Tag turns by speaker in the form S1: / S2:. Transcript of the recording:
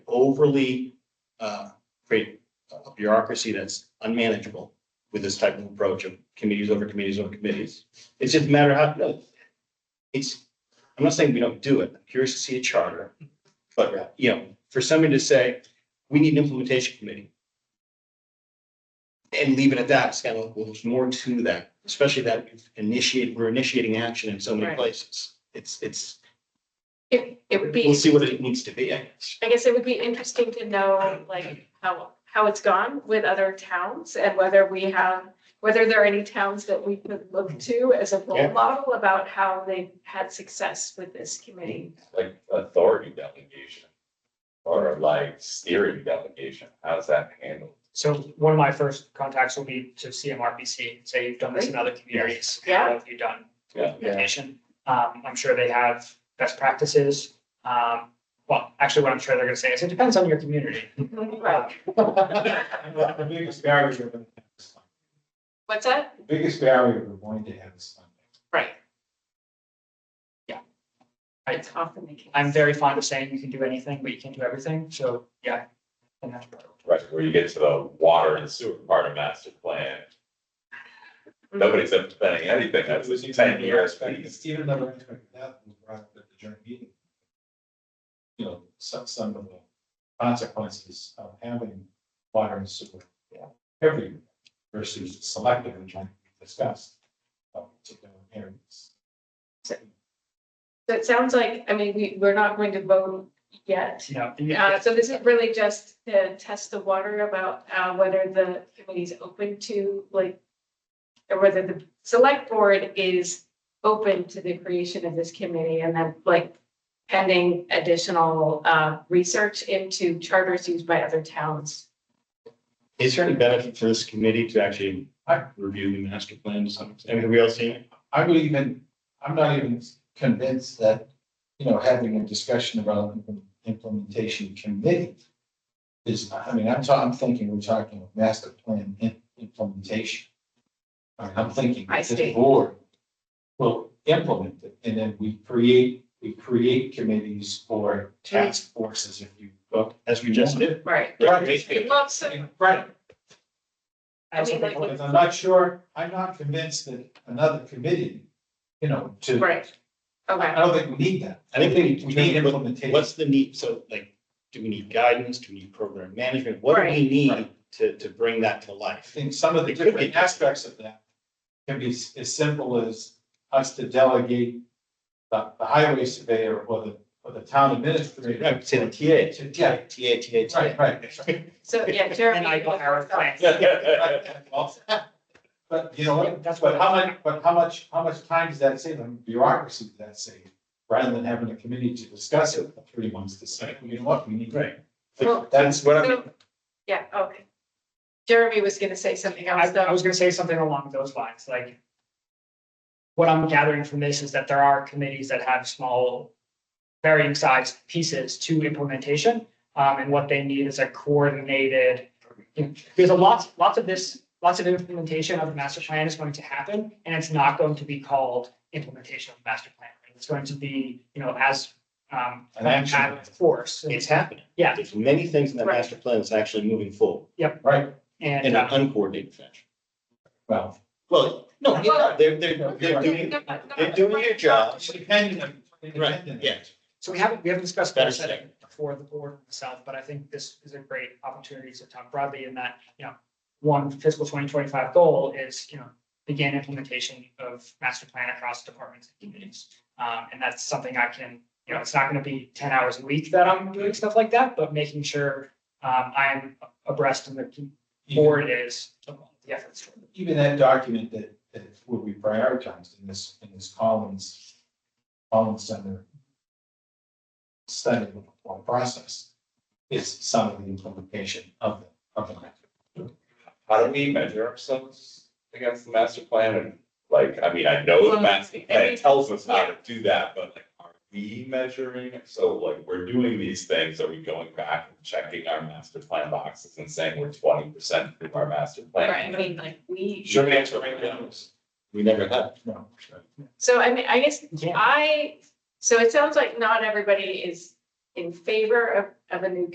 S1: overly uh, create a bureaucracy that's unmanageable with this type of approach of committees over committees over committees. It's just a matter of how, no, it's, I'm not saying we don't do it. I'm curious to see a charter. But, uh, you know, for somebody to say, we need an implementation committee. And leave it at that, it's kind of, like, well, there's more to that, especially that we've initiated, we're initiating action in so many
S2: Right.
S1: places. It's, it's,
S2: It, it would
S1: we'll
S2: be,
S1: see what it needs to be, I guess.
S2: I guess it would be interesting to know like how, how it's gone with other towns and whether we have, whether there are any towns that we could look to as a
S1: Yeah.
S2: role model about how they had success with this committee.
S3: like authority delegation or like steering delegation, how's that handled?
S4: So one of my first contacts will be to CMRPC, say you've done this in other communities.
S2: Yeah.
S4: How have you done
S3: Yeah.
S4: implementation? Um, I'm sure they have best practices. Um, well, actually, what I'm sure they're gonna say is it depends on your community. Um,
S2: Right,
S5: The biggest barrier, we're gonna have is funding.
S2: what's that?
S5: the biggest barrier we're going to have is funding.
S4: Right. I-
S2: It's often the case.
S4: I'm very fond of saying you can do anything, but you can't do everything, so, yeah. And that's part of it.
S3: Right, where you get to the water and sewer part of master plan, nobody's implementing anything, that's
S5: It was
S3: a
S5: even
S3: ten
S5: never
S3: years
S5: expected-
S3: piece.
S5: Stephen never expected that when we brought it at the joint meeting. You know, some, some of the consequences of having water and sewer.
S4: Yeah.
S5: Every versus selective and trying to discuss. uh, particular areas.
S2: So it sounds like, I mean, we, we're not going to vote yet.
S4: You know,
S2: Uh, so this is really just to test the water about, uh, whether the committee's open to, like, or whether the select board is open to the creation of this committee and then, like, pending additional, uh, research into charters used by other towns.
S1: Is there any benefit for this committee to actually
S5: I-
S1: review the master plan to some extent? Have we all seen it?
S5: I would even, I'm not even convinced that, you know, having a discussion about implement- implementation committee is, I mean, I'm talking, I'm thinking we're talking of master plan im- implementation. I mean, I'm thinking
S2: I
S5: that
S2: see.
S5: this board will implement it, and then we create, we create committees or task forces if you.
S1: Well, as we just did.
S2: Right.
S1: Right.
S2: Well, so,
S5: Right.
S4: I also
S2: mean,
S4: think
S2: like-
S5: Because I'm not sure, I'm not convinced that another committee, you know, to.
S2: right,
S5: I
S2: okay.
S5: don't think we need that.
S1: I think we need-
S5: We need
S1: What's
S5: implementation.
S1: the need? So like, do we need guidance? Do we need program management? What do we
S2: Right.
S1: need to, to bring that to
S5: I
S1: life?
S5: think some of the
S1: It could be.
S5: different aspects of that can be s- as simple as us to delegate the, the highway surveyor or the, or the town administrator.
S1: Right, say the TA.
S5: To- yeah,
S1: TA, TA,
S5: right, right.
S2: So, yeah, Jeremy.
S4: And I got our plan.
S5: Well, But you know what,
S4: That's
S5: but how much, but how much, how much time does that save, and bureaucracy does that save? Rather than having a committee to discuss it for three months to say, you know what, we need.
S1: Right.
S2: Well,
S5: That's what I'm,
S2: So, yeah, okay. Jeremy was gonna say something
S4: I,
S2: else,
S4: I
S2: though.
S4: was gonna say something along those lines, like. What I'm gathering from this is that there are committees that have small, varying size pieces to implementation. Um, and what they need is a coordinated, you know, because a lot, lots of this, lots of implementation of the master plan is going to happen. And it's not going to be called implementation of the master plan. It's going to be, you know, as, um,
S5: An action.
S4: of course.
S1: It's happening.
S4: Yeah.
S1: There's many things in that
S2: Right.
S1: master plan that's actually moving forward
S5: right,
S1: in
S4: And,
S1: an
S4: uh,
S1: uncoordinated fashion.
S5: well.
S1: Well, no, you know, they're, they're, they're
S5: Well-
S1: doing,
S2: No, no, no,
S1: they're doing your job.
S5: Independent. independent.
S1: yeah.
S4: so we haven't, we haven't discussed
S1: Better
S4: goal setting for the board itself, but I think this is a great opportunity to talk broadly in that, you know, one fiscal twenty twenty-five goal is, you know, begin implementation of master plan across departments and communities. Um, and that's something I can, you know, it's not gonna be ten hours a week that I'm doing stuff like that, but making sure um, I am abreast and the board is of all the efforts.
S5: even that document that, that would be prioritized in this, in this Collins, Collins Center study or process is some of the implementation of the, of the.
S3: How do we measure ourselves against the master plan and like, I mean, I know the master plan tells us how to do that, but like, are we measuring? it? So like, we're doing these things, are we going back and checking our master plan boxes and saying we're twenty percent through our master plan?
S2: Right, I mean, like, we.
S3: Sure, answer right now is, we never have.
S5: No,
S2: So I mean, I guess
S4: Yeah.
S2: I, so it sounds like not everybody is in favor of, of a new